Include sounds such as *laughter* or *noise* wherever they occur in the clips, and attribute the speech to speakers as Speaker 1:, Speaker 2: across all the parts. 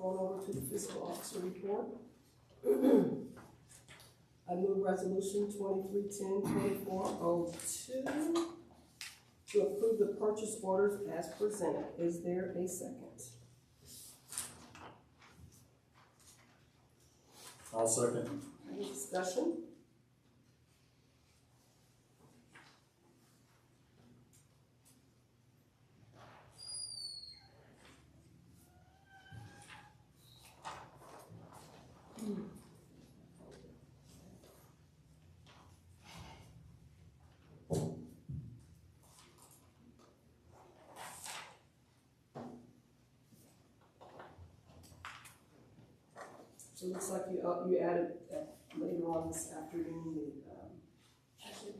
Speaker 1: to the fiscal officer report. *clears throat* I move resolution twenty-three ten twenty-four oh two to approve the purchase orders as presented. Is there a second?
Speaker 2: I'll second.
Speaker 1: Any discussion? So it looks like you, uh, you added uh, later on this afternoon, the, um,
Speaker 3: Actually,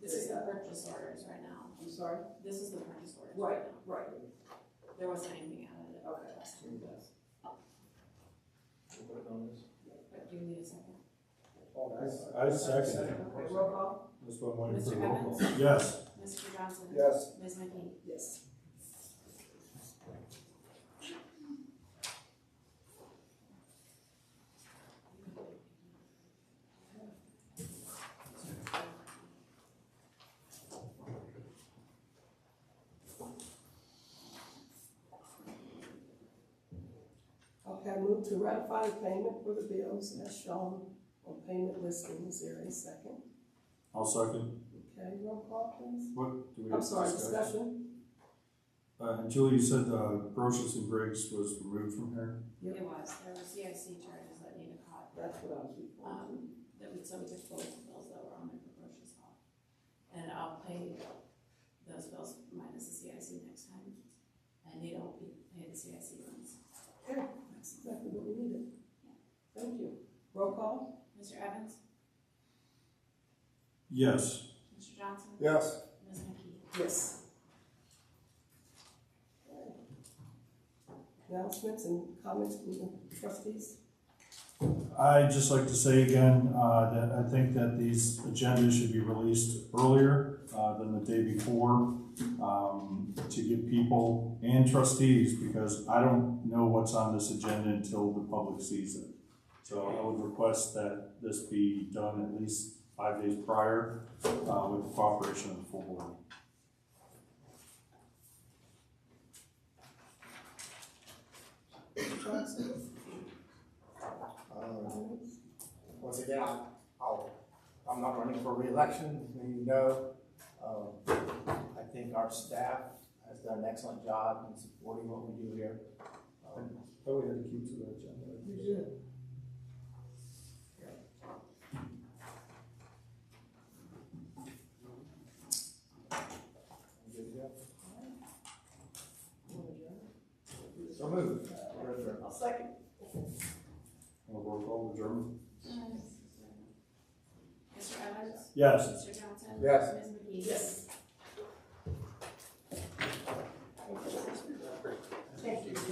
Speaker 3: this is the purchase orders right now.
Speaker 1: I'm sorry?
Speaker 3: This is the purchase orders
Speaker 1: Right,
Speaker 3: right now.
Speaker 1: right,
Speaker 3: There wasn't anything added at
Speaker 1: Okay.
Speaker 3: last year, but do you need a second?
Speaker 2: I second.
Speaker 1: Okay, roll call?
Speaker 2: That's what I'm waiting for.
Speaker 3: Mr.
Speaker 2: roll call.
Speaker 3: Evans?
Speaker 2: Yes.
Speaker 3: Mr. Johnson?
Speaker 4: Yes.
Speaker 3: Ms. McKee?
Speaker 1: Yes. Okay, I move to ratify the payment for the bills as shown on payment listing. Is there a second?
Speaker 2: I'll second.
Speaker 1: Okay, roll call please.
Speaker 2: What? do we
Speaker 1: I'm sorry,
Speaker 2: discuss?
Speaker 1: discussion?
Speaker 2: Uh, and Julie, you said, uh, Brochus and Briggs was removed from here?
Speaker 1: Yep.
Speaker 3: It was, there were CIC charges that Nina caught,
Speaker 1: That's what I was referring to.
Speaker 3: um, that would, so we took both of those that were on there for purchase hall. And I'll pay those bills minus the CIC next time. And Nita will be paying the CIC ones.
Speaker 1: Okay, that's exactly what we needed. Thank you. Roll call?
Speaker 3: Mr. Evans?
Speaker 2: Yes.
Speaker 3: Mr. Johnson?
Speaker 4: Yes.
Speaker 3: Ms. McKee?
Speaker 1: Yes. Announcements and comments from the trustees?
Speaker 2: I'd just like to say again, uh, that I think that these agendas should be released earlier, uh, than the day before, um, to give people and trustees, because I don't know what's on this agenda until the public sees it. So I would request that this be done at least five days prior, uh, with the cooperation of the full board.
Speaker 1: Johnson?
Speaker 4: Um, Once again, I, I'll, I'm not running for reelection, as you know. Um, I think our staff has done an excellent job in supporting what we do here. Um,
Speaker 2: Thought we had to keep to that agenda.
Speaker 1: You did.
Speaker 4: you good to go? So moved. We're adjourned.
Speaker 1: I'll second.
Speaker 2: Well, roll call, German?
Speaker 3: Mr. Evans?
Speaker 2: Yes.
Speaker 3: Mr. Johnson?
Speaker 4: Yes.
Speaker 3: Ms. McKee?
Speaker 1: Yes.